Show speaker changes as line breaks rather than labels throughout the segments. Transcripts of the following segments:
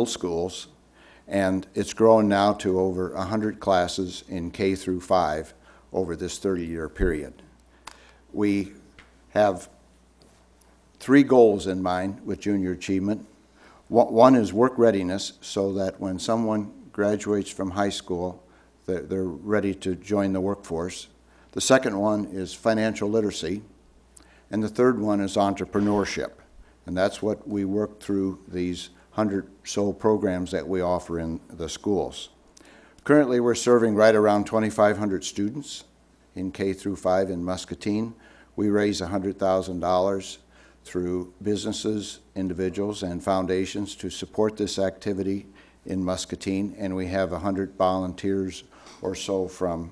middle schools, and it's grown now to over 100 classes in K through 5 over this 30-year period. We have three goals in mind with junior achievement. One one is work readiness, so that when someone graduates from high school, they're, they're ready to join the workforce. The second one is financial literacy, and the third one is entrepreneurship. And that's what we work through these 100 so programs that we offer in the schools. Currently, we're serving right around 2,500 students in K through 5 in Muscatine. We raise $100,000 through businesses, individuals, and foundations to support this activity in Muscatine, and we have 100 volunteers or so from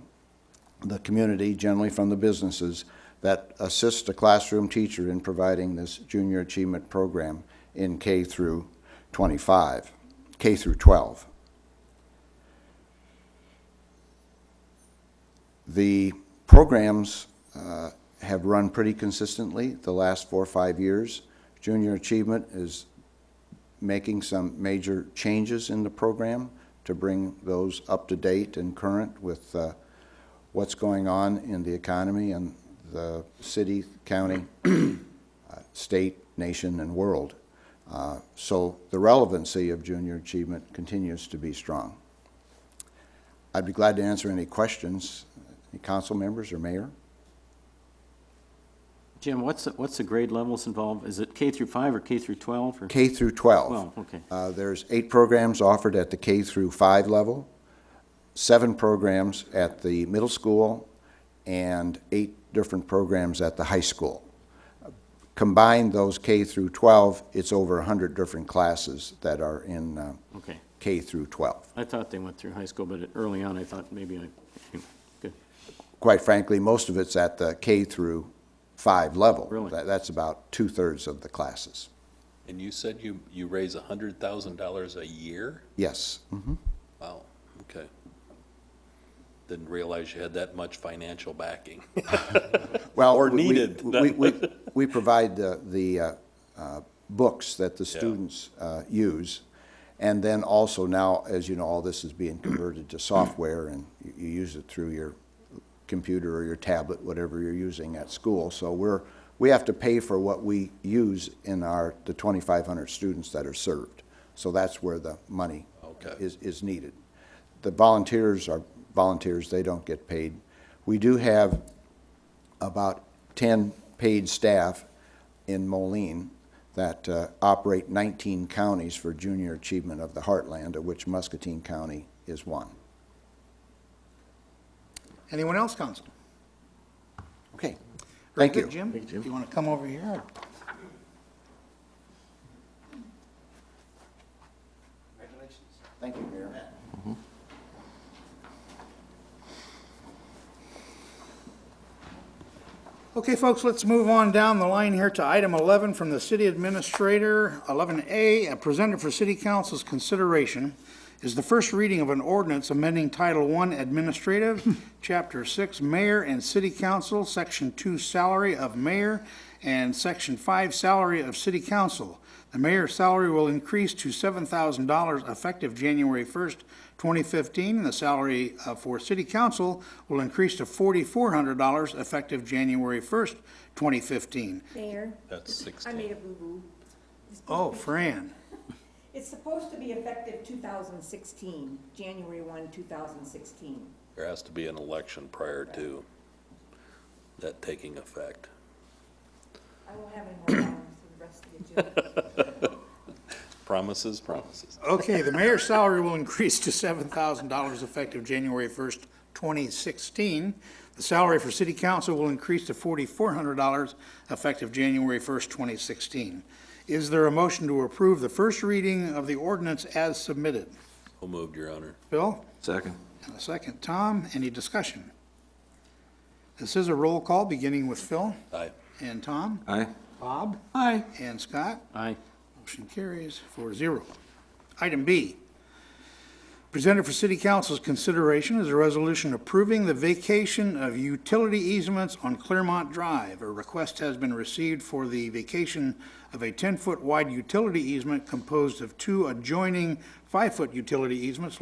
the community, generally from the businesses, that assist a classroom teacher in providing this junior achievement program in K through 25, K through 12. The programs uh, have run pretty consistently the last four or five years. Junior Achievement is making some major changes in the program to bring those up to date and current with uh, what's going on in the economy and the city, county, uh, state, nation, and world. Uh, So the relevancy of junior achievement continues to be strong. I'd be glad to answer any questions, any council members or mayor.
Jim, what's, the- what's the grade levels involved? Is it K through five or K through 12 or?
K through 12.
Well, okay.
Uh, There's eight programs offered at the K through 5 level, seven programs at the middle school, and eight different programs at the high school. Combined, those K through 12, it's over 100 different classes that are in uh,
Okay.
K through 12.
I thought they went through high school, but early on I thought maybe I, anyway, good.
Quite frankly, most of it's at the K through 5 level.
Really?
That- That's about two-thirds of the classes.
And you said you, you raise a hundred thousand dollars a year?
Yes. Mm-hmm.
Wow, okay. Didn't realize you had that much financial backing.
Well,
Or
we- we-
needed.
We, we, we provide the, the uh, uh, books that the students uh, use. And then also now, as you know, all this is being converted to software and you you use it through your computer or your tablet, whatever you're using at school. So we're, we have to pay for what we use in our, the 2,500 students that are served. So that's where the money
Okay.
is, is needed. The volunteers are volunteers, they don't get paid. We do have about 10 paid staff in Moline that uh, operate 19 counties for Junior Achievement of the Heartland, of which Muscatine County is one.
Anyone else, council?
Okay, thank you.
Jim, if you want to come over here.
Congratulations. Thank you, Mayor.
Okay, folks, let's move on down the line here to item 11 from the city administrator. 11A, uh, presented for city council's consideration is the first reading of an ordinance amending Title I Administrative, Chapter 6, Mayor and City Council, Section 2, Salary of Mayor, and Section 5, Salary of City Council. The mayor's salary will increase to $7,000 effective January 1st, 2015, and the salary uh, for city council will increase to $4,400 effective January 1st, 2015.
Mayor,
That's
I made
sixteen.
a boo-boo.
Oh, Fran,
It's supposed to be effective 2016, January 1, 2016.
There has to be an election prior to that taking effect.
I won't have any more problems with the rest of the agenda.
Promises, promises.
okay, the mayor's salary will increase to $7,000 effective January 1st, 2016. The salary for city council will increase to $4,400 effective January 1st, 2016. Is there a motion to approve the first reading of the ordinance as submitted?
Who moved, Your Honor?
Bill?
Second.
And a second, Tom. Any discussion? This is a roll call, beginning with Phil
Aye.
and Tom,
Aye.
Bob
Aye.
and Scott.
Aye.
Motion carries 4-0. Item B, Presented for city council's consideration is a resolution approving the vacation of utility easements on Clearmont Drive. A request has been received for the vacation of a 10-foot wide utility easement composed of two adjoining 5-foot utility easements